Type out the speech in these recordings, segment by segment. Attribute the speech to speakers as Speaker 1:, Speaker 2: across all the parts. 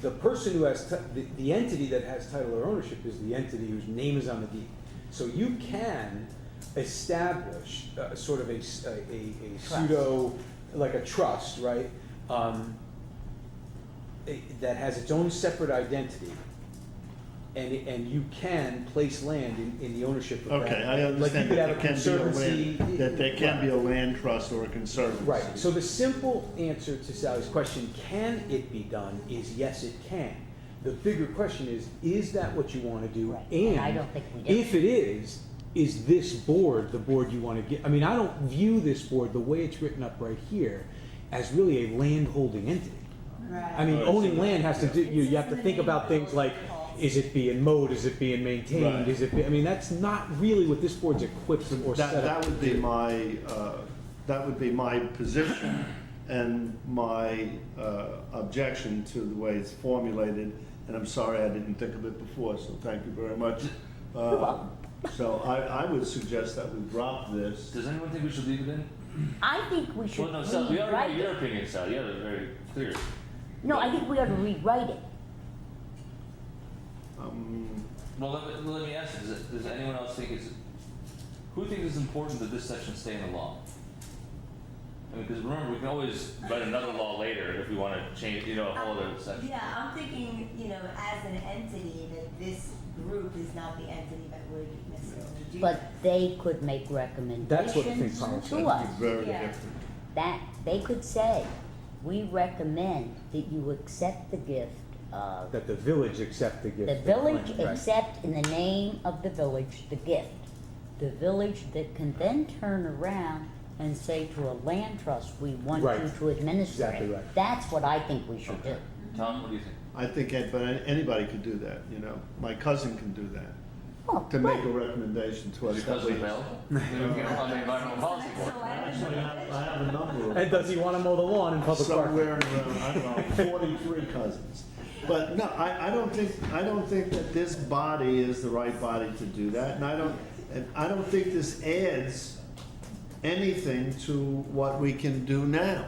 Speaker 1: the person who has, ti- the, the entity that has title or ownership is the entity whose name is on the deed. So you can establish uh, sort of a, s- a- a- a
Speaker 2: Trust.
Speaker 1: pseudo, like a trust, right? Um, a- That has its own separate identity. And, and you can place land in, in the ownership of that.
Speaker 3: Okay, I
Speaker 1: Like you
Speaker 3: understand
Speaker 1: could
Speaker 3: that
Speaker 1: have
Speaker 3: there
Speaker 1: a
Speaker 3: can be a
Speaker 1: conservancy-
Speaker 3: land, that there can be a
Speaker 1: Right.
Speaker 3: land trust or a conservancy.
Speaker 1: Right, so the simple answer to Sally's question, can it be done, is yes, it can. The bigger question is, is that what you want to do?
Speaker 2: Right, and
Speaker 1: And
Speaker 2: I don't think we did.
Speaker 1: if it is, is this board the board you want to get? I mean, I don't view this board, the way it's written up right here, as really a land holding entity. I mean,
Speaker 3: Right.
Speaker 1: owning land has to do, you, you have to think about things like, is it being mowed, is it being maintained,
Speaker 3: Right.
Speaker 1: is it, be- I mean, that's not really what this board's equipped or set up
Speaker 3: That, that
Speaker 1: to
Speaker 3: would be
Speaker 1: do.
Speaker 3: my, uh, that would be my position and my uh, objection to the way it's formulated. And I'm sorry I didn't think of it before, so thank you very much. Uh, So I, I would suggest that we drop this.
Speaker 4: Does anyone think we should leave it in?
Speaker 2: I think we should
Speaker 4: Well, no, Sal, we
Speaker 2: rewrite
Speaker 4: already know your
Speaker 2: it.
Speaker 4: opinion, Sal, you have it very clear.
Speaker 2: No, I think we ought to rewrite it.
Speaker 3: Um,
Speaker 4: Well, let me, let me ask you, does, does anyone else think it's, who thinks it's important that this section stay in the law? I mean, because remember, we can always write another law later if we want to change, you know, a whole other section.
Speaker 5: Yeah, I'm thinking, you know, as an entity, that this group is not the entity that would necessarily do
Speaker 2: But
Speaker 5: that.
Speaker 2: they could make
Speaker 1: That's what I think
Speaker 2: recommendations
Speaker 1: Tom's
Speaker 2: to
Speaker 1: saying.
Speaker 2: us.
Speaker 3: That'd be very
Speaker 5: Yeah.
Speaker 3: different.
Speaker 2: That, they could say, we recommend that you accept the gift of,
Speaker 1: That the village accept the gift.
Speaker 2: the
Speaker 1: of
Speaker 2: village
Speaker 1: land, right.
Speaker 2: accept in the name of the village the gift. The village that can then turn around and say to a land trust, we want you
Speaker 1: Right.
Speaker 2: to administer it.
Speaker 1: Exactly right.
Speaker 2: That's what I think we should do.
Speaker 4: Tom, what do you think?
Speaker 3: I think, an- but anybody could do that, you know, my cousin can do that,
Speaker 2: Oh,
Speaker 3: to make a
Speaker 2: right.
Speaker 3: recommendation to us.
Speaker 4: His cousin Bill? Maybe we can call the environmental policy board.
Speaker 5: So I don't
Speaker 3: Actually, I
Speaker 5: know.
Speaker 3: have, I have a number of.
Speaker 1: And does he want to mow the lawn in public park?
Speaker 3: somewhere around, I don't know, forty-three cousins. But no, I, I don't think, I don't think that this body is the right body to do that, and I don't, and I don't think this adds anything to what we can do now.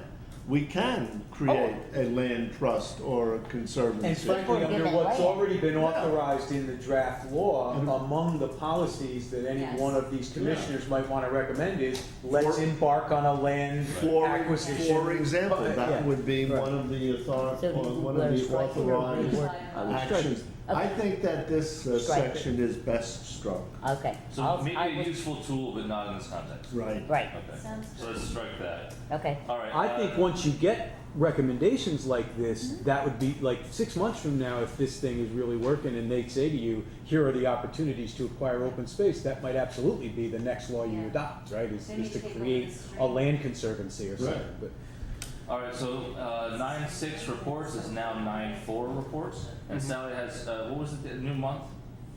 Speaker 3: We can create a land trust or a
Speaker 1: And
Speaker 3: conservancy.
Speaker 1: frankly, under
Speaker 2: Given
Speaker 1: what's
Speaker 2: land.
Speaker 1: already been authorized in the draft law,
Speaker 3: Mm-hmm.
Speaker 1: among the policies that any
Speaker 5: Yes.
Speaker 1: one of these commissioners might want to recommend is, let's
Speaker 3: For-
Speaker 1: embark on a land
Speaker 3: For,
Speaker 1: acquisition.
Speaker 3: for example,
Speaker 1: Uh, yeah.
Speaker 3: that would be
Speaker 1: Right.
Speaker 3: one of the author,
Speaker 2: So do you
Speaker 3: one of
Speaker 2: wanna
Speaker 3: the
Speaker 2: strike it or
Speaker 3: authorized
Speaker 2: reword?
Speaker 5: I
Speaker 2: would strike
Speaker 3: actions.
Speaker 2: it.
Speaker 3: I think that this
Speaker 2: Strike
Speaker 3: uh,
Speaker 2: it.
Speaker 3: section is best struck,
Speaker 2: Okay,
Speaker 4: So
Speaker 2: I'll,
Speaker 4: maybe
Speaker 2: I
Speaker 4: a
Speaker 2: will,
Speaker 4: useful tool, but not in this context.
Speaker 3: right?
Speaker 2: right,
Speaker 4: Okay,
Speaker 5: Sounds
Speaker 4: so let's strike that.
Speaker 2: okay.
Speaker 4: All right.
Speaker 1: I
Speaker 4: uh,
Speaker 1: think once you get recommendations like this,
Speaker 5: Mm-hmm.
Speaker 1: that would be, like, six months from now, if this thing is really working and they say to you, here are the opportunities to acquire open space, that might absolutely be the next law you
Speaker 5: Yeah.
Speaker 1: adopt, right? Is
Speaker 5: Then
Speaker 1: is to
Speaker 5: you take away
Speaker 1: create
Speaker 5: the street.
Speaker 1: a land conservancy or something,
Speaker 3: Right.
Speaker 1: but.
Speaker 4: All right, so uh, nine six reports is now nine four reports, and Sally has uh, what was it? The new month.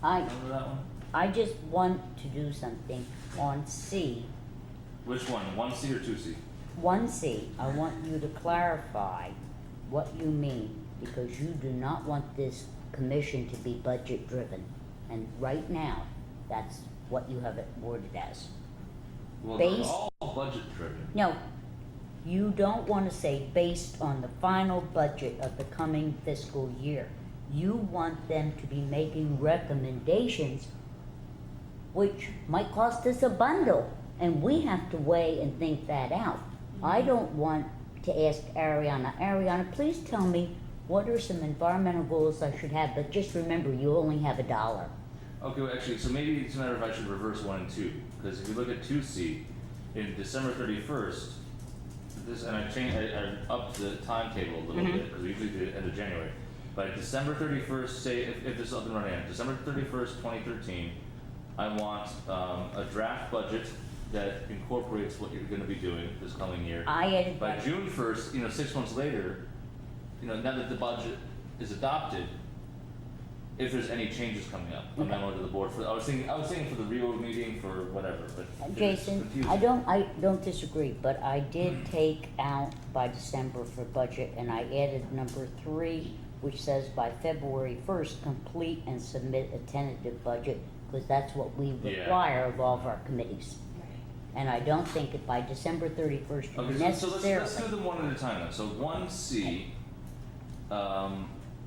Speaker 2: I,
Speaker 4: Remember that one?
Speaker 2: I just want to do something on C,
Speaker 4: Which one? One C or two C?
Speaker 2: one C, I want you to clarify what you mean, because you do not want this commission to be budget driven. And right now, that's what you have it worded as.
Speaker 4: Well, they're
Speaker 2: Based-
Speaker 4: all budget driven.
Speaker 2: No, you don't wanna say based on the final budget of the coming fiscal year. You want them to be making recommendations, which might cost us a bundle, and we have to weigh and think that out. I don't want to ask Ariana, Ariana, please tell me, what are some environmental goals I should have, but just remember, you only have a dollar.
Speaker 4: Okay, well, actually, so maybe it's a matter of I should reverse one and two because if you look at two C, in December thirty first, this and I changed I, I upped the timetable a little bit 'cause bit because we usually do it end of January. But December thirty first, say if, if this is up and running, December thirty first, twenty thirteen, I want um, a draft budget that incorporates what you're going to be doing this coming year.
Speaker 2: I added
Speaker 4: By June first, you know, six months later, you know, now that the budget is adopted, if there's any changes coming up, a memo to the board for, I was thinking, I was thinking for the reorg meeting for whatever, but. it's
Speaker 2: Jason, I
Speaker 4: confusing. Hmm.
Speaker 2: don't, I don't disagree, but I did take out by December for budget, and I added number three, which says by February first, complete and submit a tentative budget, because that's what we
Speaker 4: Yeah.
Speaker 2: require of all of our committees. And I don't think it by December thirty-first
Speaker 4: Okay, so- so let's,
Speaker 2: necessarily.
Speaker 4: let's do them one at a time then, so one C, um,